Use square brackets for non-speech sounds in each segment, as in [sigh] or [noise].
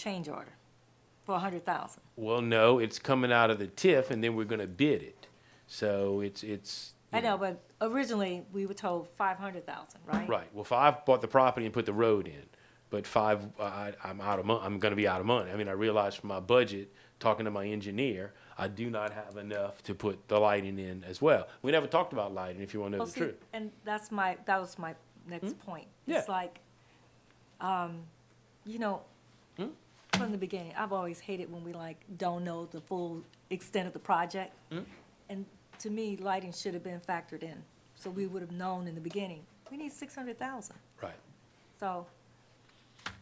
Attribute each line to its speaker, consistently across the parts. Speaker 1: change order for a hundred thousand.
Speaker 2: Well, no, it's coming out of the TIF and then we're gonna bid it. So it's, it's. you
Speaker 1: I know, but originally, we were told five hundred thousand, right?
Speaker 2: Right, well, five bought the property and put the road in, but five, I, I'm out of mon, I'm gonna be out of money. I mean, I realized from my budget, talking to my engineer, I do not have enough to put the lighting in as well. We never talked about lighting, if you wanna know
Speaker 1: Well,
Speaker 2: the
Speaker 1: see,
Speaker 2: truth.
Speaker 1: And that's my, that was my next point. It's
Speaker 2: Yeah.
Speaker 1: like, um, you know, from the beginning, I've always hated when we like don't know the full extent of the project. And to me, lighting should have been factored in, so we would have known in the beginning, we need six hundred thousand.
Speaker 2: Right,
Speaker 1: So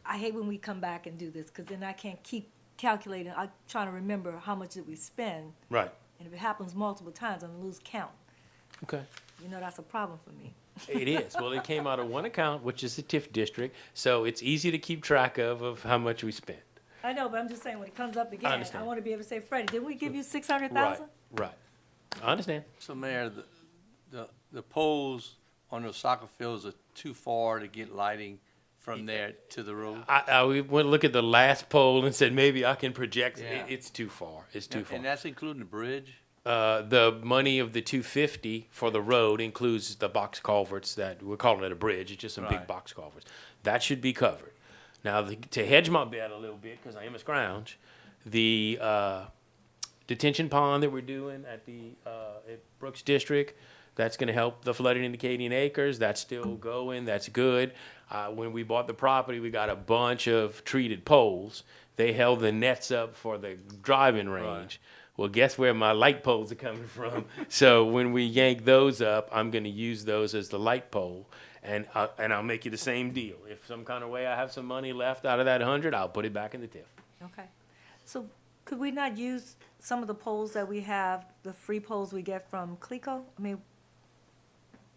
Speaker 1: I hate when we come back and do this, because then I can't keep calculating, I'm trying to remember how much did we spend,
Speaker 2: right,
Speaker 1: and if it happens multiple times, I'm gonna lose count.
Speaker 2: okay.
Speaker 1: You know, that's a problem for me.
Speaker 2: It is. Well, it came out of one account, which is the TIF district, so it's easy to keep track of, of how much we spent.
Speaker 1: I know, but I'm just saying, when it comes up again, I
Speaker 2: understand.
Speaker 1: wanna be able to say, Freddie, didn't we give you six hundred
Speaker 2: Right,
Speaker 1: thousand?
Speaker 2: right. I understand.
Speaker 3: So Mayor, the, the, the poles on those soccer fields are too far to get lighting from there to the road?
Speaker 2: I, I we went look at the last poll and said maybe I can project.
Speaker 3: Yeah.
Speaker 2: It, it's too far. It's too
Speaker 3: And and
Speaker 2: far.
Speaker 3: that's including the bridge?
Speaker 2: Uh, the money of the two fifty for the road includes the box culverts that we're calling it a bridge. It's just some big
Speaker 3: Right.
Speaker 2: box culverts that should be covered. Now the, to hedge my bet a little bit because I am a scrounge, the uh, detention pond that we're doing at the uh, at Brooks District. That's going to help the flooding in the Acadian Acres. That's still going. That's good. Uh, when we bought the property, we got a bunch of treated poles. They held the nets up for the driving range. Well, guess where my light poles are coming from? [laughs] so when we yank those up, I'm going to use those as the light pole, and uh, and I'll make you the same deal. If some kind of way I have some money left out of that hundred, I'll put it back in the TIF.
Speaker 1: Okay, so could we not use some of the polls that we have, the free polls we get from CLECO? I mean,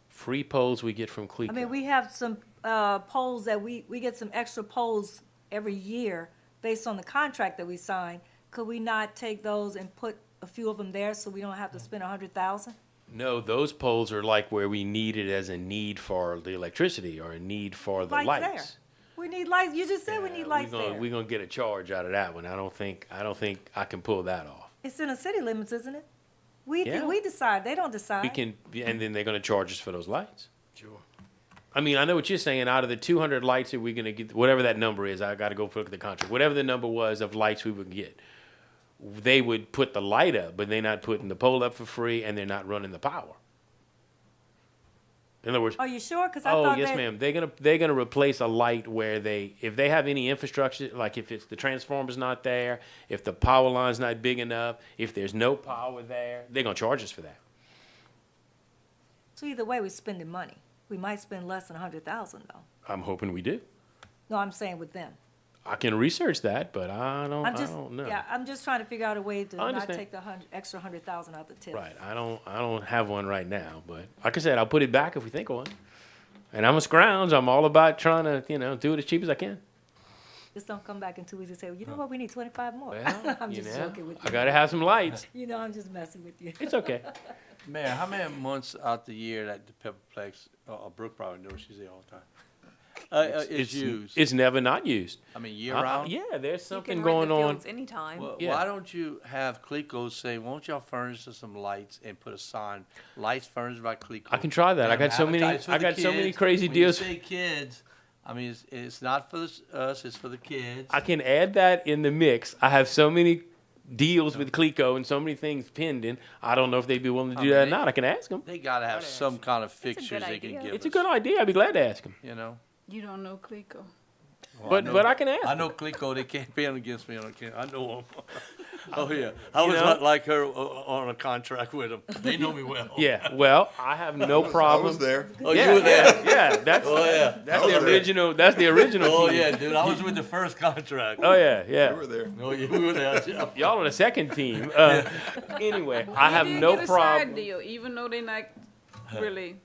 Speaker 2: Free poles we get from Cleco.
Speaker 1: I mean, we have some uh, polls that we, we get some extra polls every year based on the contract that we sign. Could we not take those and put a few of them there so we don't
Speaker 2: Mm.
Speaker 1: have to spend a hundred thousand?
Speaker 2: No, those poles are like where we need it as a need for the electricity or a need for the
Speaker 1: Lights there.
Speaker 2: lights.
Speaker 1: We need lights, you just said we need lights
Speaker 2: We're
Speaker 1: there.
Speaker 2: gonna get a charge out of that one. I don't think I don't think I can pull that off.
Speaker 1: It's in the city limits, isn't it? We,
Speaker 2: Yeah.
Speaker 1: can- we decide, they don't
Speaker 2: We
Speaker 1: decide.
Speaker 2: can, and then they're gonna charge us for those lights. Sure. I mean, I know what you're saying. Out of the 200 lights that we're gonna get, whatever that number is, I gotta go look at the contract. Whatever the number was of lights we would get, they would put the light up, but they're not putting the pole up for free, and they're not running the power. In other words,
Speaker 1: Are you sure? Because I
Speaker 2: Oh
Speaker 1: thought
Speaker 2: yes,
Speaker 1: that-
Speaker 2: ma'am. They're gonna they're gonna replace a light where they if they have any infrastructure like if it's the transformer's not there, if the power line's not big enough, if there's no power there, they're gonna charge us for that.
Speaker 1: So either way, we're spending money. We might spend less than a hundred thousand though.
Speaker 2: I'm hoping we do.
Speaker 1: No, I'm saying with them.
Speaker 2: I can research that, but I don't
Speaker 1: I'm
Speaker 2: Oh, I
Speaker 1: just,
Speaker 2: don't know.
Speaker 1: yeah, I'm just trying to figure out a way to not
Speaker 2: understand.
Speaker 1: take the hundred, extra hundred thousand out the tip.
Speaker 2: Right. I don't I don't have one right now, but like I said, I'll put it back if we think of one. And I'm a scrounge. I'm all about trying to, you know, do it as cheap as I [laughs] can.
Speaker 1: Just don't come back in two weeks and say, well, you know what, we need twenty-five more.
Speaker 2: Well,
Speaker 1: [laughs] I'm
Speaker 2: you
Speaker 1: just
Speaker 2: know,
Speaker 1: joking with
Speaker 2: I
Speaker 1: you.
Speaker 2: gotta have some lights.
Speaker 1: You know, I'm just messing with you.
Speaker 2: It's okay.
Speaker 3: Mayor, how many months out the year that the Pepperplex, or or uh, Brooke probably knows, she's there all the time, uh, uh, is used?
Speaker 2: It's never not used.
Speaker 3: I mean, year
Speaker 2: Uh,
Speaker 3: round?
Speaker 2: Yeah, there's something
Speaker 4: you can rent
Speaker 2: going
Speaker 4: the
Speaker 2: on.
Speaker 4: fields anytime.
Speaker 3: Well,
Speaker 2: Yeah.
Speaker 3: Why don't you have Cleco say, won't y'all furnish us some lights and put a sign, lights furnished by Cleco?
Speaker 2: I can try that. I got so many-
Speaker 3: Advertise for
Speaker 2: I
Speaker 3: the
Speaker 2: got so many
Speaker 3: kids.
Speaker 2: crazy
Speaker 3: When you
Speaker 2: deals.
Speaker 3: say kids, I mean, it's, it's not for the- us, it's for the kids.
Speaker 2: I can add that in the mix. I have so many deals with Clico and so many things pending. I don't know if they'd be willing to do
Speaker 3: I
Speaker 2: that or
Speaker 3: mean,
Speaker 2: not. I can ask them.
Speaker 3: They gotta have some kind of
Speaker 4: good
Speaker 3: fixtures they can
Speaker 4: idea.
Speaker 3: give
Speaker 2: It's a
Speaker 3: us,
Speaker 2: good idea. I'd be glad to ask them.
Speaker 3: You know?
Speaker 5: You don't know Clico.
Speaker 3: Well,
Speaker 2: But-
Speaker 3: know-
Speaker 2: but I can ask
Speaker 3: I
Speaker 2: them.
Speaker 3: know Clico, they can't be on against me on a can, I
Speaker 2: [laughs]
Speaker 3: know them. Oh, yeah. I
Speaker 2: You
Speaker 3: was
Speaker 2: know?
Speaker 3: not like her o- o- on a contract with them. They know me well.
Speaker 2: Yeah. Well, I have
Speaker 3: [laughs]
Speaker 2: no problem.
Speaker 6: I was there.
Speaker 3: Oh,
Speaker 2: Yeah,
Speaker 3: you were there?
Speaker 2: Yeah. That's
Speaker 3: Oh, yeah.
Speaker 2: [laughs] that's
Speaker 6: I was
Speaker 2: the
Speaker 6: there.
Speaker 2: original. That's the original.
Speaker 3: Oh,
Speaker 2: team.
Speaker 3: yeah, dude. I was
Speaker 2: [laughs]
Speaker 3: with the first contract.
Speaker 2: Oh yeah.
Speaker 6: You
Speaker 2: Yeah.
Speaker 6: were there.
Speaker 3: No, you were there. yeah.
Speaker 2: Y'all on the second
Speaker 3: [laughs]
Speaker 2: team. Uh, anyway, I have
Speaker 5: They
Speaker 2: no
Speaker 5: get a Side
Speaker 2: problem.
Speaker 5: deal, even though they're not really, uh,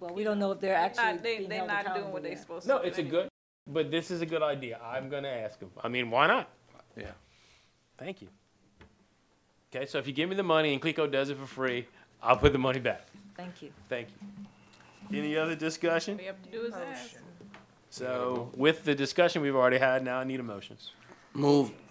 Speaker 1: Well, we don't know if they're actually
Speaker 4: not, they,
Speaker 1: being
Speaker 4: they're
Speaker 1: held
Speaker 4: not doing
Speaker 1: accountable
Speaker 4: what they're
Speaker 1: yet.
Speaker 4: supposed
Speaker 2: No,
Speaker 4: to do.
Speaker 2: it's a
Speaker 4: anyway.
Speaker 2: good. But this is a good idea. I'm gonna ask them. I mean, why not?
Speaker 3: Yeah.
Speaker 2: Thank you. Okay, so if you give me the money and Clico does it for free, I'll put the money back.
Speaker 1: Thank you.
Speaker 2: Thank you. Any other discussion?
Speaker 1: Oh,
Speaker 4: We have to do is ask.
Speaker 2: So with the discussion we've already had, now I need a motion.
Speaker 3: Move